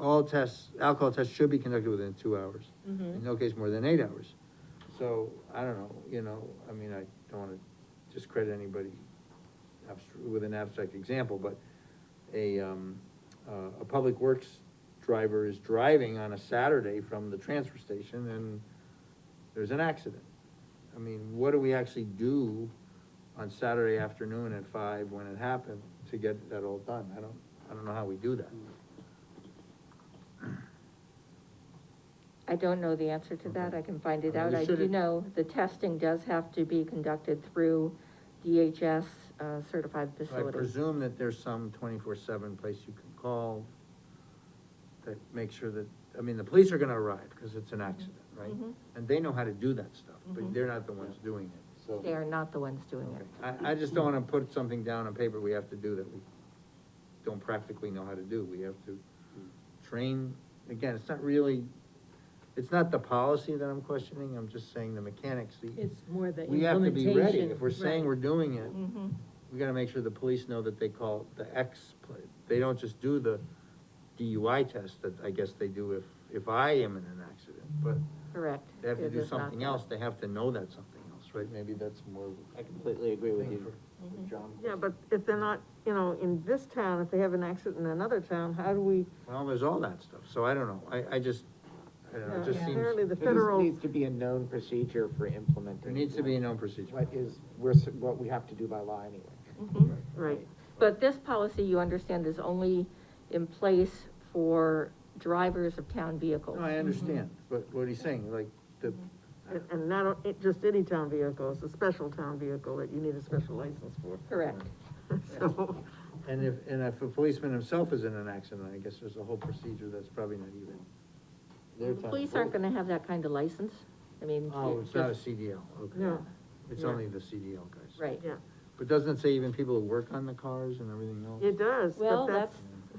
all tests, alcohol tests should be conducted within two hours. In no case more than eight hours. So, I don't know, you know, I mean, I don't wanna discredit anybody abstr- with an abstract example, but a, um, uh, a public works driver is driving on a Saturday from the transfer station and there's an accident. I mean, what do we actually do on Saturday afternoon at five when it happened to get that all done? I don't, I don't know how we do that. I don't know the answer to that, I can find it Okay. out, You I said do it- know the testing does have to be conducted through DHS uh, certified So I facilities. presume that there's some twenty-four seven place you can call that makes sure that, I mean, the police are gonna arrive, because it's an accident, right? Mhm. And they know how to do that stuff, but Mhm. they're not the ones doing it, so. They are not the ones doing Okay. it. I, I just don't wanna put something down on paper we have to do that we don't practically know how to do, we have to train, again, it's not really, it's not the policy that I'm questioning, I'm just saying the mechanics, the. It's more the We have to be ready, implementation, if we're saying right. we're doing it, Mhm. we gotta make sure the police know that they call the X, pla- they don't just do the DUI test that I guess they do if, if I am in an accident, but Correct. they have to It do is not something that. else, they have to know that something else, right? Maybe that's more. I completely agree with thing you, for- Mm-hmm. with John. Yeah, but if they're not, you know, in this town, if they have an accident in another town, how do we? Well, there's all that stuff, so I don't know, I, I just, I don't know, it just Yeah, seems, uh, Apparently the It just federal, needs to be a known procedure for implementing. there needs to be a known procedure. What is, we're, s- what we have to do by law anyway. Mm-hmm. Mhm. right, But this policy, you understand, is only in place for drivers of town vehicles. No, I understand, but what he's saying, like, the, and- and not, o- it, just any town vehicle, it's a special town vehicle that you need a special license for. Correct. So, and if, and if a policeman himself is in an accident, I guess there's a whole procedure that's probably not even. The police aren't gonna have that kind of license, I mean. Oh, it it's not a just- CDL, okay. No. It's Yeah. only the CDL guys. Right, yeah, But doesn't it say even people who work on the cars and everything else? it does, well, but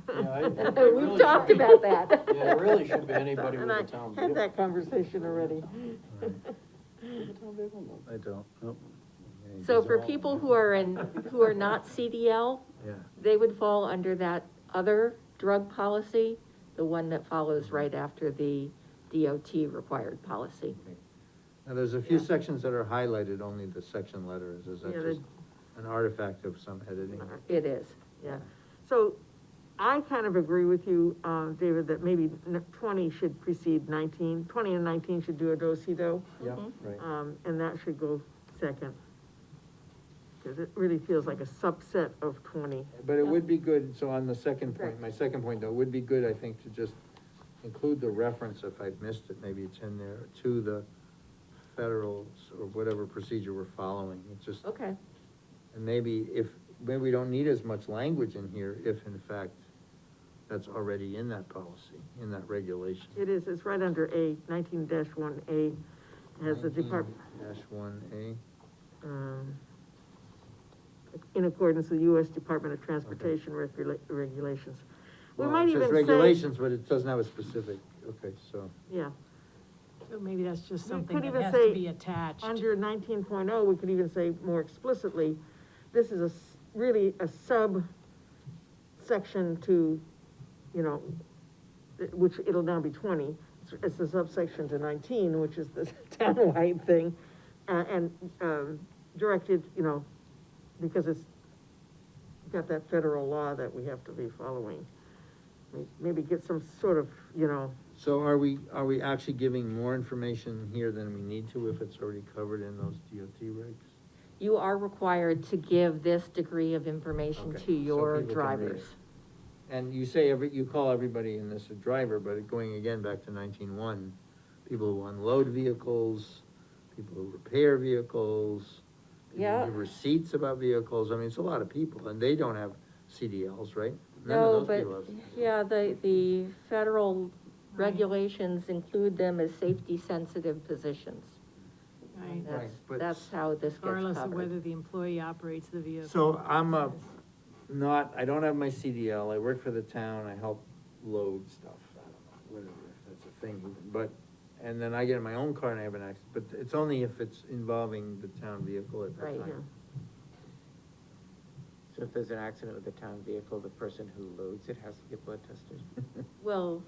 that's, that's. we've talked about that. Yeah, it really should be anybody And I had that conversation already. I don't, nope. Yeah, So these for are all- people who are in, who are not CDL, Yeah, they would fall under that other drug policy, the one that follows Mm-hmm. right after the DOT required policy. now there's a few sections that are highlighted, only the section letters, is that Yeah, they- just an artifact of some editing? It is. Yeah, so I kind of agree with you, uh, David, that maybe n- twenty should precede nineteen. Twenty and nineteen should do a do-si-do, Yeah, right. um, and that should go second. Cause it really feels like a subset of twenty. But it would be good, so on the second point, my second point though, it would be good, I think, to just include the reference, if I've missed it, maybe it's in there, to the federal or whatever procedure we're following, it just. Okay, And maybe if, maybe we don't need as much language in here if in fact that's already in that policy, in that regulation. It is, it's right under A, nineteen one A, has the department, Dash one A, um, in accordance with US Department of Transportation regula- regulations. We well, might it says even say, regulations, but it doesn't have a specific, okay, so, yeah, So maybe that's just We something could that even has say to be attached. under nineteen oh, we could even say more explicitly, this is a, s- really a subsection to, you know, th- which it'll now be twenty, It's- it's the subsection to nineteen, which is the townwide thing, uh, and, um, directed, you know, because it's got that federal law that we have to be following. May- Maybe get some sort of, you know, so are we, are we actually giving more information here than we need to if it's already covered in those DOT regs? you are required to give this degree of information Okay, to so your people can read drivers. And you say every, you call everybody in this a driver, but going again back to nineteen one, people who unload vehicles, people who repair vehicles. people who Yeah. Give receipts about vehicles, I mean, it's a lot of people, and they don't have CDLs, right? None of No, those but, people have- yeah, the, the federal regulations include them as safety-sensitive positions. Right. Right, That's, but- that's how this gets Regardless of covered. whether the employee operates the vehicle. So I'm a, not, I don't have my CDL, I work for the town, I help load stuff, I don't know, whatever, if that's a thing, even, but, and then I get in my own car and I have an accident, but it's only if it's involving the town vehicle at that Right. time. yeah. So if there's an accident with a town vehicle, the person who loads it has to get blood tested? Well,